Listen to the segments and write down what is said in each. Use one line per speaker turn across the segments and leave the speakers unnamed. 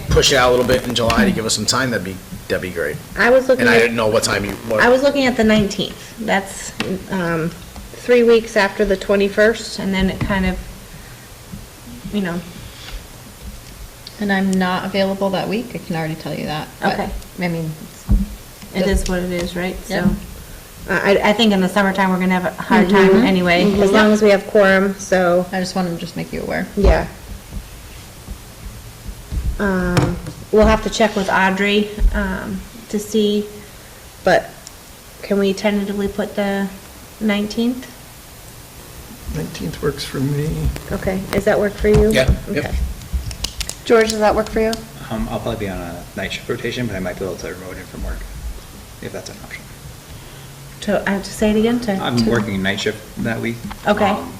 push it out a little bit in July to give us some time, that'd be, that'd be great.
I was looking
And I
at,
didn't know what time you,
I
what,
was looking at the 19th. That's um, three weeks after the 21st, and then it kind of, you know,
And I'm not available that week, I can already tell you that. but,
Okay.
I mean,
it is what it is, right? So,
Yeah.
uh, I, I think in the summertime, we're going to have a hard time anyway, as long as we have quorum, so.
I just wanted to just make you aware.
Yeah. Um, we'll have to check with Audrey, um, to see, but can we tentatively put the nineteenth?
19th works for me.
Okay, does that work for you?
Yeah, yep.
Okay. George, does that work for you?
Um, I'll probably be on a night shift rotation, but I might be able to remote in from work, if that's an option.
To, I have to say it again, to?
I'm
to-
working night shift that week.
Okay.
Um,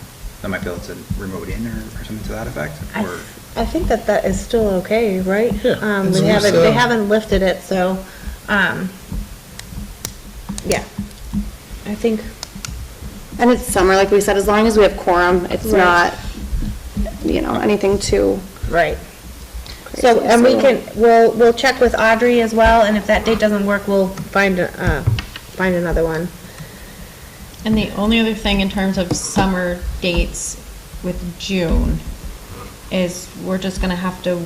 I might be able to remote in or, or something to that effect,
I
or,
I think that that is still okay, right?
Yeah,
Um,
it's
they haven't,
also-
uh,
they haven't lifted it, so, um, yeah. I think,
And it's summer, like we said, as long as we have quorum, it's
Right.
not, you know, anything too
right.
crazy.
So, and we can, we'll, we'll check with Audrey as well, and if that date doesn't work, we'll find, a- uh, find another one.
And the only other thing in terms of summer dates with June is we're just gonna have to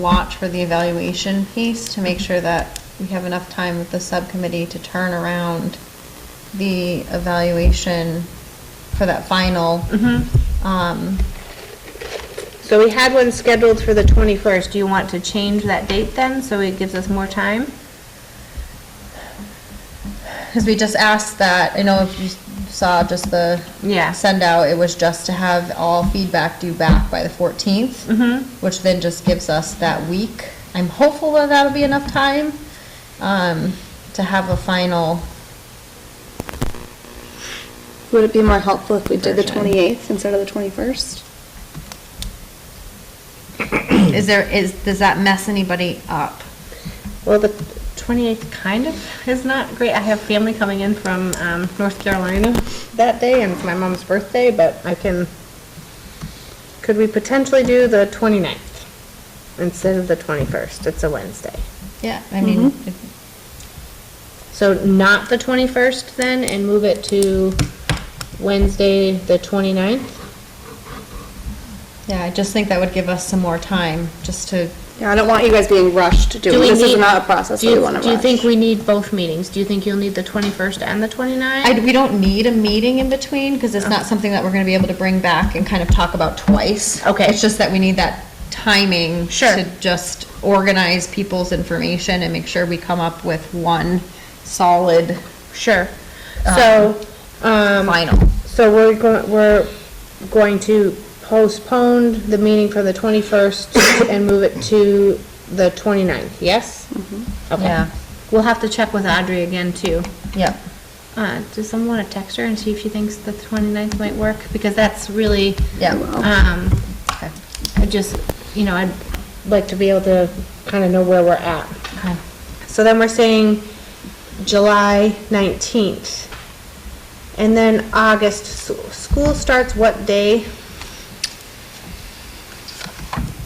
watch for the evaluation piece to make sure that we have enough time with the subcommittee to turn around the evaluation for that final. Um,
So we had one scheduled for the 21st. Do you want to change that date then, so it gives us more time?
Because we just asked that, I know if you saw just the.
Yeah.
Send out, it was just to have all feedback due back by the 14th.
Mm-hmm.
Which then just gives us that week. I'm hopeful that that'll be enough time um, to have a final,
Would it be more helpful if we did the
Version.
28th instead of the 21st?
is there, is, does that mess anybody up?
Well, the 28th kind of is not great. I have family coming in from, um, North Carolina that day, and it's my mom's birthday, but I can, could we potentially do the 29th instead of the 21st? It's a Wednesday.
Yeah, I mean, if-
So not the 21st then, and move it to Wednesday, the 29th?
yeah, I just think that would give us some more time just to,
Yeah, I don't want you guys being rushed to do it.
we
This is
need-
not a process
do
that we
you-
want to rush.
Do you think we need both meetings? Do you think you'll need the 21st and the 29th?
I, we don't need a meeting in between because it's not something that we're going to be able to bring back and kind of talk about twice.
Okay.
It's just that we need that timing.
Sure.
To just organize people's information and make sure we come up with one solid
Sure. Uh, So, um.
final.
So we're going, we're going to postpone the meeting for the 21st and move it to the 29th, yes? Okay.
Yeah.
We'll have to check with Audrey again, too.
Yep.
Uh, does someone want to text her and see if she thinks the 29th might work? Because that's really,
Yeah.
um,
Okay.
I just, you know, I'd like to be able to kind of know where we're at.
Okay.
So then we're saying July 19th. And then August, s- school starts what day?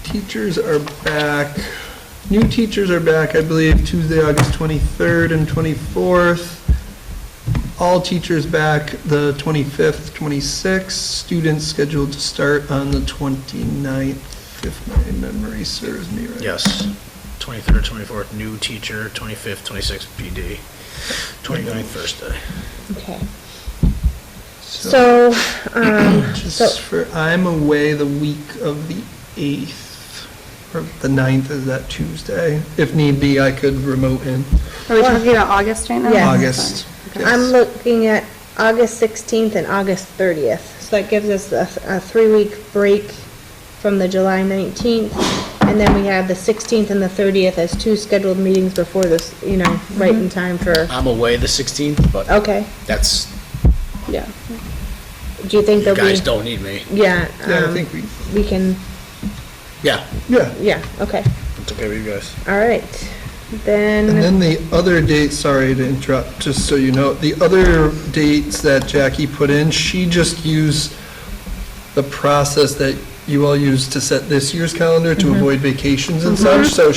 Teachers are back, new teachers are back, I believe, Tuesday, August 23rd and 24th. All teachers back the 25th, 26th, students scheduled to start on the 29th, if my memory serves me right.
yes. Twenty-third, twenty-fourth, new teacher, twenty-fifth, twenty-sixth, PD, 29th Thursday.
Okay. So, um,
Just
so,
for, I'm away the week of the 8th, or the 9th, is that Tuesday? If need be, I could remote in
Are we talking about August right now?
Yes.
August.
I'm
Yes.
looking at August 16th and August 30th. So that gives us a, a three-week break from the July 19th. And then we have the 16th and the 30th as two scheduled meetings before this, you know, right in time for,
I'm away the sixteenth, but
okay,
that's,
yeah. Do you think
you
there'll be?
guys don't need me.
Yeah.
Yeah, I
um,
think we,
We can,
Yeah,
yeah.
yeah, okay,
it's okay with you guys.
all right.
And
Then,
then the other date, sorry to interrupt, just so you know, the other dates that Jackie put in, she just used the process that Mm-hmm. you all used to set this year's calendar to avoid vacations and such, so